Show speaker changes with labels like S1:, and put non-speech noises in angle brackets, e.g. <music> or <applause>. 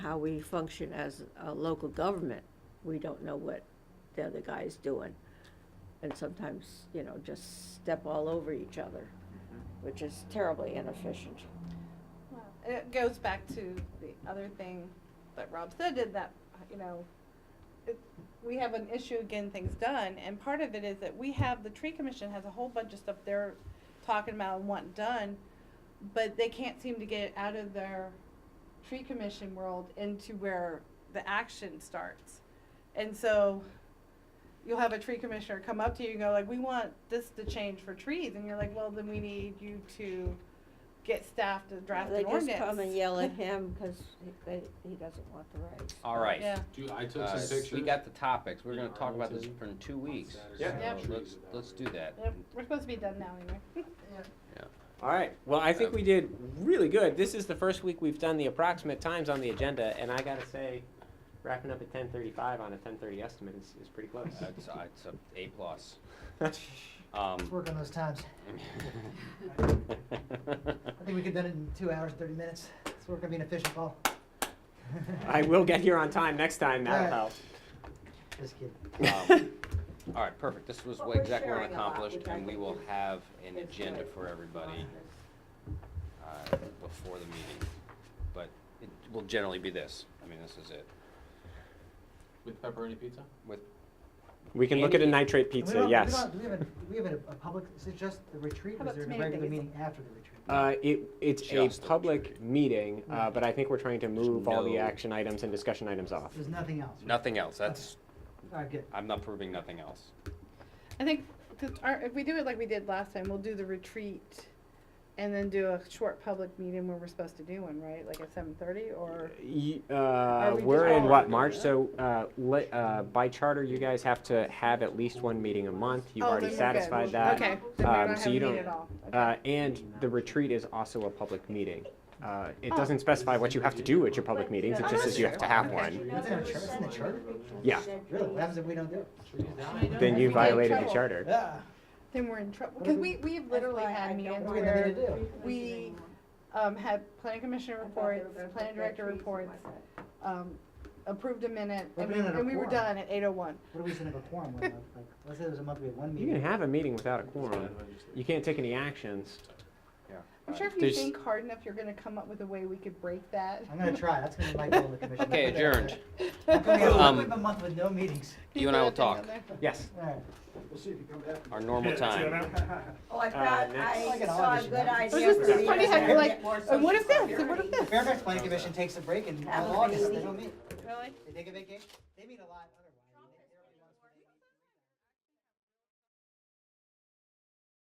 S1: how we function as a local government. We don't know what the other guy's doing. And sometimes, you know, just step all over each other, which is terribly inefficient.
S2: Well, It goes back to the other thing that Rob said, did that, you know, it, we have an issue getting things done, and part of it is that we have, the tree commission has a whole bunch of stuff they're talking about and want done, but they can't seem to get out of their tree commission world into where the action starts. And so you'll have a tree commissioner come up to you and go like, we want this to change for trees, and you're like, well, then we need you to get staff to draft an ordinance.
S1: They just come and yell
S2: <laughs>
S1: at him because he, he doesn't want the rights.
S3: All right.
S2: Yeah.
S4: Do, I took
S3: Uh,
S4: some pictures.
S3: We got the topics. We're gonna
S4: In
S3: talk about this
S4: Arlington
S3: for in two weeks.
S4: Yeah.
S2: Yeah.
S3: So Let's, let's do that.
S2: Yep, We're supposed to be done now anyway. <laughs>
S5: All right. Well, I think we did really good. This is the first week we've done the approximate times on the agenda, and I gotta say, wrapping up at ten thirty-five on a ten thirty estimate is, is pretty close.
S3: Uh, It's, it's a A plus.
S5: <laughs>
S6: <laughs>
S5: All
S3: Um, <laughs>
S6: Let's work on those times. I think we could have done it in two hours, thirty minutes. Let's work on being efficient, Paul.
S5: right, we'll get here on time next time. That'll
S6: All
S5: help.
S6: <laughs> Just kidding.
S3: um, All right, perfect. This was
S1: But
S3: what
S1: we're
S3: exactly what
S1: sharing a lot,
S3: accomplished,
S1: which I
S3: and we
S1: think
S3: will
S1: is-
S3: have an
S1: is
S3: agenda
S1: good.
S3: for everybody uh, before the meeting. But it will generally be this. I mean, this is it.
S4: With pepperoni pizza?
S3: With,
S5: We can look at a nitrate
S6: And we
S5: pizza.
S6: don't- we
S5: yes.
S6: don't- Do we have a, do we have a, a public, is it just the retreat?
S2: How
S6: or
S2: about
S6: Is there a
S2: tomato
S6: regular
S2: basil?
S6: meeting after the retreat?
S5: Uh, it, it's a
S3: Just the
S5: public meeting, uh, but I think we're trying to move all the
S3: no-
S5: action items and discussion items off.
S6: There's nothing else? right?
S3: nothing else. That's,
S6: All right, good.
S3: I'm not proving nothing else.
S2: I think, 'cause our, if we do it like we did last time, we'll do the retreat and then do a short public meeting where we're supposed to do one, right? Like at seven thirty or?
S5: Y- Uh,
S2: we
S5: we're
S2: just
S5: in
S2: all
S5: what,
S2: doing
S5: March?
S2: that?
S5: So, uh, le- uh, by charter, you guys have to have at least one meeting a month. You've
S2: Oh,
S5: already
S2: then we're good.
S5: satisfied that.
S2: Okay, then we're
S5: um,
S2: not
S5: so you
S2: having a meeting
S5: don't-
S2: at all. Okay.
S5: Uh, and the retreat is also a public meeting. Uh, it doesn't specify what you have to do at your public meetings, it
S2: Oh,
S5: just
S2: that's
S5: says you have to have
S2: okay.
S5: one.
S6: It's in our chart, it's in the charter?
S5: Yeah.
S6: Really? What happens if we don't do it? Ah.
S5: Then
S2: We
S5: you
S2: get in
S5: violated the
S2: trouble.
S5: charter.
S6: Yeah.
S2: Then we're in trouble,
S6: What
S2: cause
S6: if
S2: we,
S6: we-
S2: we've literally
S1: why I
S2: had
S1: don't
S2: meetings
S6: What are we
S2: where.
S6: gonna do?
S2: we- um, had planning commissioner reports, planning director reports, um, approved a minute,
S6: We're
S2: and we,
S6: doing it
S2: and we were
S6: before.
S2: done at eight oh one.
S6: What are we sending a quorum with? Like, let's say there's a month we have one
S5: You
S6: meeting.
S5: can have a meeting without a quorum. You can't take any actions.
S2: I'm sure if you
S5: There's-
S2: think hard enough, you're gonna come up with a way we could break that. <laughs>
S6: I'm gonna try. That's gonna be my goal in the commission.
S3: Okay,
S6: Let's put that out
S3: adjourned.
S6: there. How come we have- how come
S3: <laughs> Um,
S6: we have a month with no meetings?
S3: You and I will
S2: Throw a
S3: talk,
S2: thing out there.
S5: Yes.
S6: All right.
S3: our normal time.
S1: Oh, I
S5: Uh,
S1: thought,
S5: next-
S6: Like
S1: I
S6: an
S1: saw a
S6: audition,
S1: good
S6: huh?
S1: idea.
S6: It's
S2: just-
S1: for
S2: it's
S1: me
S2: funny
S1: to
S2: how you're
S1: get
S2: like,
S1: more
S2: And what if
S1: social
S2: this, and what if
S6: The
S2: this?
S6: Fairfax Planning Commission takes a break in
S1: Have a
S6: August, they
S1: baby.
S6: don't meet.
S2: Really?
S6: They take a vacation, they meet a lot. other-